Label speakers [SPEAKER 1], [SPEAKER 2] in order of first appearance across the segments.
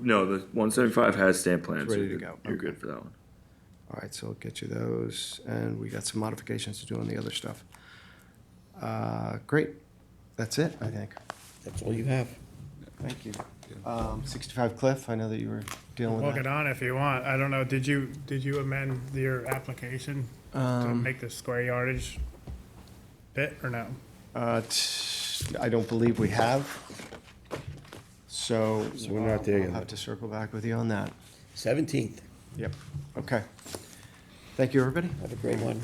[SPEAKER 1] No, the one seventy-five has stamp plans.
[SPEAKER 2] It's ready
[SPEAKER 1] You're
[SPEAKER 2] to
[SPEAKER 1] good-
[SPEAKER 2] go.
[SPEAKER 1] You're good for that one.
[SPEAKER 2] All right, so I'll get you those, and we got some modifications to do on the other stuff. Uh, Great, that's it, I think.
[SPEAKER 3] That's all you have.
[SPEAKER 2] Thank you. Um, 65 Cliff, I know that you were dealing
[SPEAKER 4] Look
[SPEAKER 2] with
[SPEAKER 4] it
[SPEAKER 2] that.
[SPEAKER 4] on if you want. I don't know, did you, did you amend your application to
[SPEAKER 2] Um,
[SPEAKER 4] make the square yardage fit or no?
[SPEAKER 2] uh, t- I don't believe we have, so.
[SPEAKER 3] So we're not there
[SPEAKER 2] uh,
[SPEAKER 3] yet.
[SPEAKER 2] I'll have to circle back with you on that.
[SPEAKER 3] Seventeenth,
[SPEAKER 2] Yep. Okay. Thank you, everybody.
[SPEAKER 3] have a great one.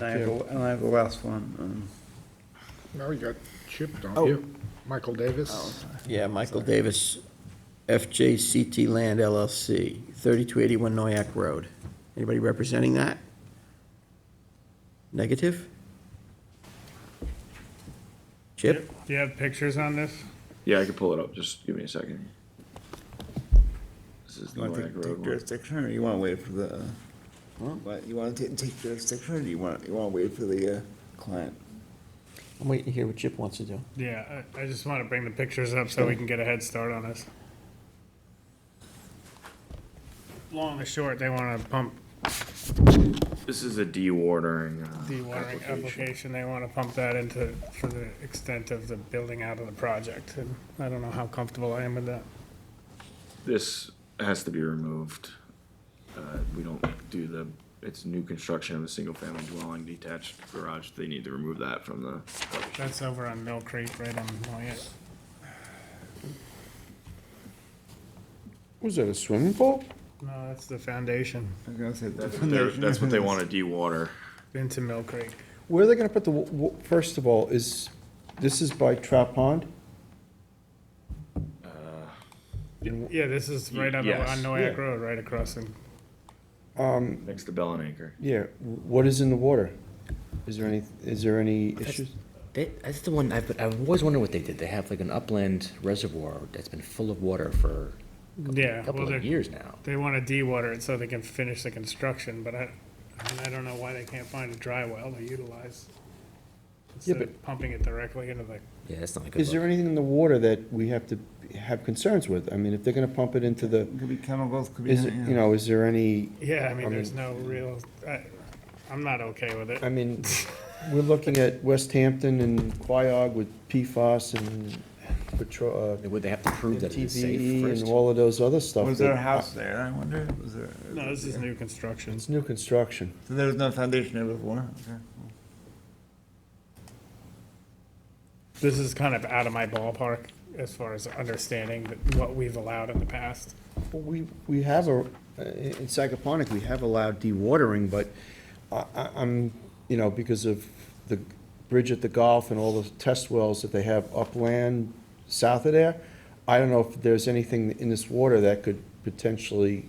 [SPEAKER 5] I have, a- and I have the last one. um,
[SPEAKER 6] No, you got Chip, don't
[SPEAKER 2] Oh.
[SPEAKER 6] you? Michael Davis.
[SPEAKER 3] Yeah, Michael Davis, FJCT Land LLC, thirty-two eighty-one Noyak Road. Anybody representing that? Negative? Chip?
[SPEAKER 4] Do you have pictures on this?
[SPEAKER 1] Yeah, I can pull it up. Just give me a second. This is
[SPEAKER 5] You
[SPEAKER 1] the
[SPEAKER 5] want to
[SPEAKER 1] Noack
[SPEAKER 5] take-
[SPEAKER 1] Road
[SPEAKER 5] take
[SPEAKER 1] one.
[SPEAKER 5] jurisdiction, or you want to wait for the, uh, what, you want to take jurisdiction, or do you want, you want to wait for the uh, client?
[SPEAKER 3] I'm waiting to hear what Chip wants to do.
[SPEAKER 4] Yeah, I, I just want to bring the pictures up so we can get a head start on this. Long and short, they want to pump
[SPEAKER 1] This is a dewatering. uh,
[SPEAKER 4] dewatering application. They want to pump that into, for the extent of the building out of the project. And I don't know how comfortable I am with that.
[SPEAKER 1] This has to be removed. Uh, we don't do the, it's new construction of a single-family dwelling detached garage. They need to remove that from the.
[SPEAKER 4] That's over on Mill Creek, right on Moyet.
[SPEAKER 7] Was that a swimming pool?
[SPEAKER 4] No, that's the foundation
[SPEAKER 5] I was gonna say. the
[SPEAKER 1] That's what they're-
[SPEAKER 5] foundation.
[SPEAKER 1] That's what they want to dewater.
[SPEAKER 4] into Mill Creek.
[SPEAKER 7] Where are they gonna put the, w- w- first of all, is, this is by Trap Pond?
[SPEAKER 4] Yeah, this is right on, the-
[SPEAKER 1] Yes.
[SPEAKER 4] on Noyak
[SPEAKER 7] Yeah.
[SPEAKER 4] Road, right across in
[SPEAKER 1] Next to Bell and Anchor.
[SPEAKER 7] Yeah, what is in the water? Is there any, is there any issues?
[SPEAKER 8] They, that's the one I've, I've always wondered what they did. They have like an upland reservoir that's been full of water for a
[SPEAKER 4] Yeah,
[SPEAKER 8] couple
[SPEAKER 4] well,
[SPEAKER 8] of
[SPEAKER 4] they,
[SPEAKER 8] years now.
[SPEAKER 4] they wanna de-water it so they can finish the construction, but I, I mean, I don't know why they can't find a dry well to utilize. Instead of pumping it directly into the,
[SPEAKER 8] Yeah, that's not a good.
[SPEAKER 7] Is there
[SPEAKER 8] look.
[SPEAKER 7] anything in the water that we have to have concerns with? I mean, if they're gonna pump it into the,
[SPEAKER 5] Could be chemicals, could be.
[SPEAKER 7] is, it- you know, is there any,
[SPEAKER 4] yeah, I mean,
[SPEAKER 7] I
[SPEAKER 4] there's
[SPEAKER 7] mean-
[SPEAKER 4] no real, I, I'm not okay with
[SPEAKER 7] I
[SPEAKER 4] it.
[SPEAKER 7] mean, we're looking at West Hampton and Quiog with PFAS and Petro, uh,
[SPEAKER 8] Would they have to prove that it is safe
[SPEAKER 7] TBE
[SPEAKER 8] first?
[SPEAKER 7] and all of those other stuff.
[SPEAKER 5] Was there a
[SPEAKER 7] that- uh,
[SPEAKER 5] house there, I wonder? Was there?
[SPEAKER 4] No, this is new construction.
[SPEAKER 7] It's new construction.
[SPEAKER 5] So there was no foundation there before? Okay.
[SPEAKER 4] This is kind of out of my ballpark as far as understanding that- what we've allowed in the past.
[SPEAKER 7] Well, We, we have a, in Sagaponic, we have allowed dewatering, but I, I- I'm, you know, because of the bridge at the Gulf and all the test wells that they have upland south of there, I don't know if there's anything in this water that could potentially,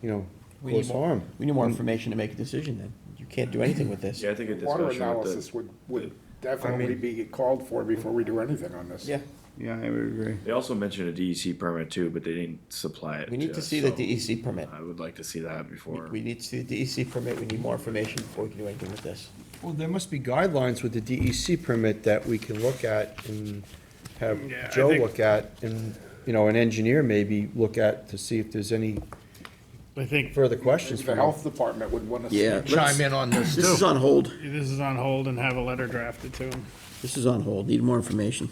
[SPEAKER 7] you know,
[SPEAKER 3] We need
[SPEAKER 7] cause
[SPEAKER 3] more-
[SPEAKER 7] harm.
[SPEAKER 3] We need more information to make a decision then. You can't do anything with this.
[SPEAKER 1] Yeah, I think a discussion
[SPEAKER 6] Water
[SPEAKER 1] with the.
[SPEAKER 6] analysis would, would definitely be called for before we do anything on this.
[SPEAKER 3] Yeah,
[SPEAKER 5] Yeah, I would agree.
[SPEAKER 1] They also mentioned a DEC permit too, but they didn't supply it.
[SPEAKER 3] we need to
[SPEAKER 1] us,
[SPEAKER 3] see the
[SPEAKER 1] so
[SPEAKER 3] DEC permit.
[SPEAKER 1] I would like to see that
[SPEAKER 3] We-
[SPEAKER 1] before.
[SPEAKER 3] We need to see the DEC permit, we need more information before we can do anything with this.
[SPEAKER 7] Well, there must be guidelines with the DEC permit that we can look at and have
[SPEAKER 4] Yeah, I
[SPEAKER 7] Joe
[SPEAKER 4] think-
[SPEAKER 7] look at and, you know, an engineer maybe look at to see if there's any
[SPEAKER 4] I think
[SPEAKER 7] further questions
[SPEAKER 6] The
[SPEAKER 7] from them.
[SPEAKER 6] health department would want to.
[SPEAKER 3] Chime in on this This is on hold.
[SPEAKER 4] this is on hold and have a letter drafted to them.
[SPEAKER 3] This is on hold, need more information.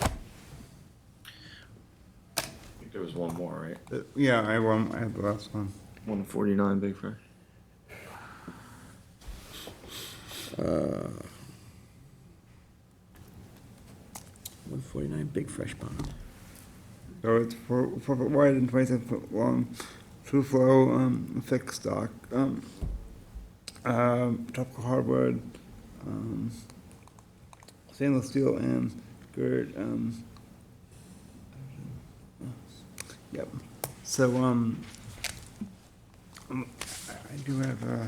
[SPEAKER 1] I think There was one more, right?
[SPEAKER 5] Uh, Yeah, I have one, I have the last one.
[SPEAKER 1] One forty-nine Big Fry.
[SPEAKER 3] One forty-nine Big Fresh Pond.
[SPEAKER 5] So it's four, four foot wide and twenty-seven foot long, true flow, um, fixed dock, um, um, tropical hardwood, um, stainless steel and gird, um, yep. So, um, um, I I do have, uh,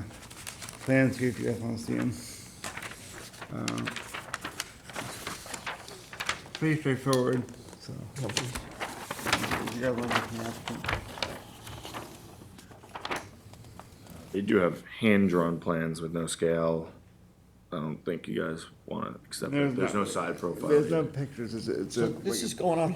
[SPEAKER 5] plans here if you guys wanna see them. Uh, Pretty straightforward, so. You got one with the applicant.
[SPEAKER 1] They do have hand-drawn plans with no scale. I don't think you guys wanna accept it.
[SPEAKER 5] There's
[SPEAKER 1] There's
[SPEAKER 5] no-
[SPEAKER 1] no side profile.
[SPEAKER 5] There's no
[SPEAKER 1] either.
[SPEAKER 5] pictures, it's, it's. a-
[SPEAKER 3] So this is going on